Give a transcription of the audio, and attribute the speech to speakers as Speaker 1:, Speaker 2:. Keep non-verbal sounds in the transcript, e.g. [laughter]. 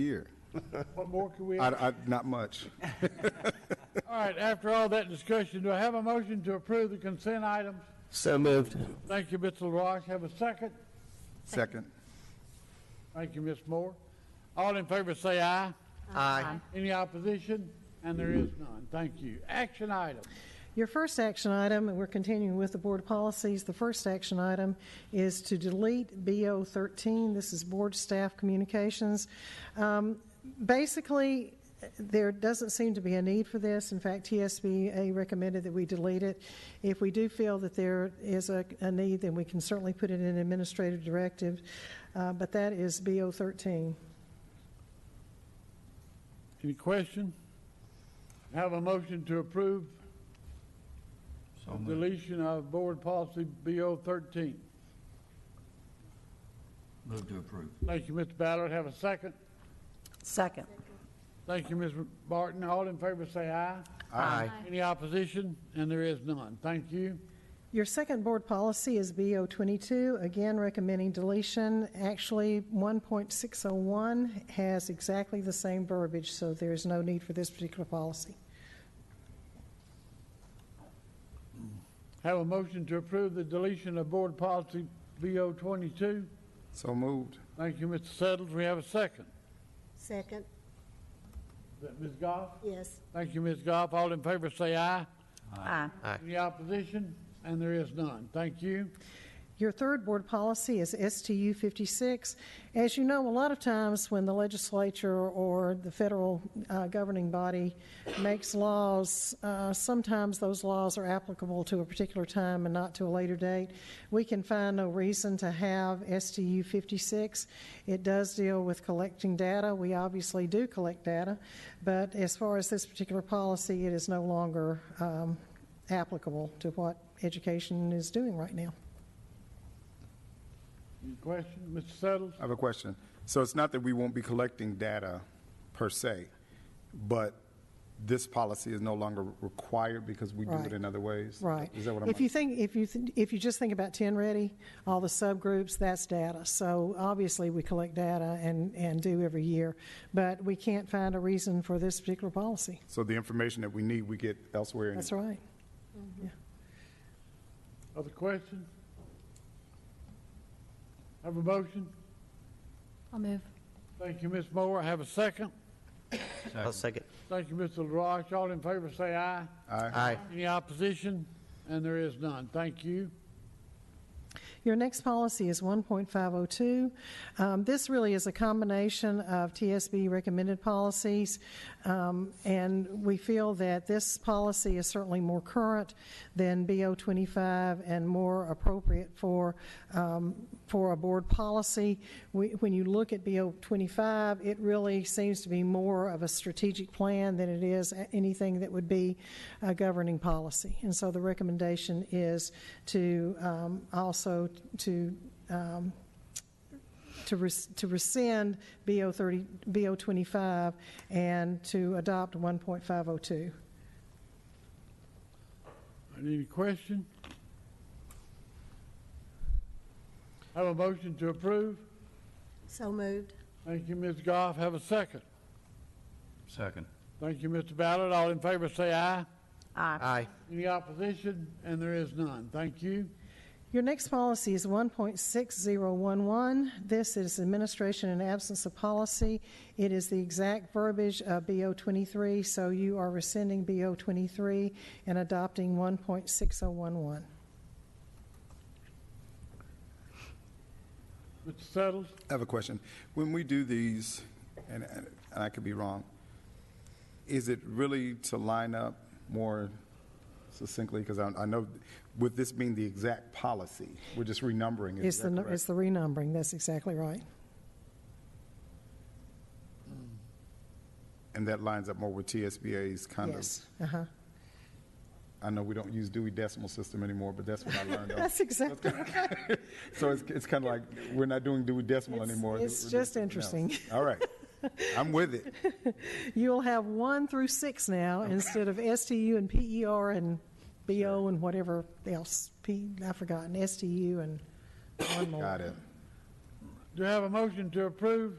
Speaker 1: year.
Speaker 2: What more can we?
Speaker 1: I,
Speaker 2: All
Speaker 1: I, not
Speaker 3: [laughs]
Speaker 1: much.
Speaker 2: right, after all that discussion, do I have a motion to approve the consent items?
Speaker 4: So moved.
Speaker 2: Thank you, Mr. LaRoche. Have a second?
Speaker 1: Second,
Speaker 2: Thank you, Ms. Moore. All in favor say aye.
Speaker 4: Aye.
Speaker 2: Any opposition? And there is none. Thank you. Action items.
Speaker 3: Your first action item, and we're continuing with the board policies, the first action item is to delete BO 13. This is board staff communications. Um, Basically, there doesn't seem to be a need for this. In fact, TSBA recommended that we delete it. If we do feel that there is a, a need, then we can certainly put it in administrative directive, Uh, but that is BO 13.
Speaker 2: Any question? Have a motion to approve the deletion of board policy BO thirteen.
Speaker 5: Move to approve.
Speaker 2: Thank you, Mr. Ballard. Have a second.
Speaker 6: Second.
Speaker 2: Thank you, Ms. Barton. All in favor say aye.
Speaker 4: Aye.
Speaker 2: Any opposition? And there is none. Thank you.
Speaker 3: Your second board policy is BO 22, again recommending deletion. Actually, 1.601 has exactly the same verbiage, so there is no need for this particular policy.
Speaker 2: Have a motion to approve the deletion of board policy BO twenty-two.
Speaker 1: so moved.
Speaker 2: Thank you, Mr. Settles. We have a second.
Speaker 7: Second,
Speaker 2: Is that Ms. Goff?
Speaker 7: yes.
Speaker 2: Thank you, Ms. Goff. All in favor say aye.
Speaker 6: Aye.
Speaker 2: Any opposition? And there is none. Thank you.
Speaker 3: Your third board policy is STU 56. As you know, a lot of times when the legislature or the federal uh, governing body makes laws, uh, sometimes those laws are applicable to a particular time and not to a later date. We can find no reason to have STU 56. It does deal with collecting data. We obviously do collect data, but as far as this particular policy, it is no longer um, applicable to what education is doing right now.
Speaker 2: Any question? Mr. Settles?
Speaker 1: I have a question. So it's not that we won't be collecting data per se, but this policy is no longer required because we do
Speaker 3: Right.
Speaker 1: it in other ways?
Speaker 3: Right.
Speaker 1: Is that what I'm?
Speaker 3: If you think, if you, th- if you just think about 10 Ready, all the subgroups, that's data. So obviously, we collect data and, and do every year, but we can't find a reason for this particular policy.
Speaker 1: So the information that we need, we get elsewhere?
Speaker 3: That's right.
Speaker 2: Other questions? Have a motion?
Speaker 6: I'll move.
Speaker 2: Thank you, Ms. Moore. Have a second?
Speaker 4: I'll second.
Speaker 2: Thank you, Mr. LaRoche. All in favor say aye.
Speaker 1: Aye.
Speaker 4: Aye.
Speaker 2: Any opposition? And there is none. Thank you.
Speaker 3: Your next policy is 1.502. Um, This really is a combination of TSB recommended policies, um, and we feel that this policy is certainly more current than BO 25 and more appropriate for, um, for a board policy. We- When you look at BO 25, it really seems to be more of a strategic plan than it is a- anything that would be a governing policy. And so the recommendation is to um, also to, um, to res- to rescind BO 30, BO 25 and to adopt 1.502.
Speaker 2: Any question? Have a motion to approve?
Speaker 7: So moved,
Speaker 2: Thank you, Ms. Goff. Have a second?
Speaker 5: Second.
Speaker 2: Thank you, Mr. Ballard. All in favor say aye.
Speaker 4: Aye.
Speaker 2: Any opposition? And there is none. Thank you.
Speaker 3: Your next policy is 1.6011. This is administration and absence of policy. It is the exact verbiage of BO 23, so you are rescinding BO 23 and adopting 1.6011.
Speaker 2: Mr. Settles?
Speaker 1: I have a question. When we do these, and, and I could be wrong, is it really to line up more succinctly? Because I, I know with this being the exact policy, we're just renumbering it.
Speaker 3: It's
Speaker 1: Is
Speaker 3: the,
Speaker 1: that
Speaker 3: nu-
Speaker 1: correct?
Speaker 3: it's the renumbering, that's exactly right.
Speaker 1: And that lines up more with TSBA's kind of,
Speaker 3: Yes,
Speaker 1: [laughs]
Speaker 3: uh-huh.
Speaker 1: I know we don't use Dewey Decimal System anymore, but that's what I learned. of.
Speaker 3: That's exactly,
Speaker 1: So it's, it's kind of like, we're not doing Dewey Decimal
Speaker 3: It's-
Speaker 1: anymore.
Speaker 3: it's
Speaker 1: We're doing
Speaker 3: just
Speaker 1: something else.
Speaker 3: interesting.
Speaker 1: All right. I'm with
Speaker 3: [laughs]
Speaker 1: it.
Speaker 3: you'll have 1 through 6 now instead of STU and PER and BO and whatever else, P, I've forgotten, STU and one more.
Speaker 1: Got it.
Speaker 2: Do you have a motion to approve?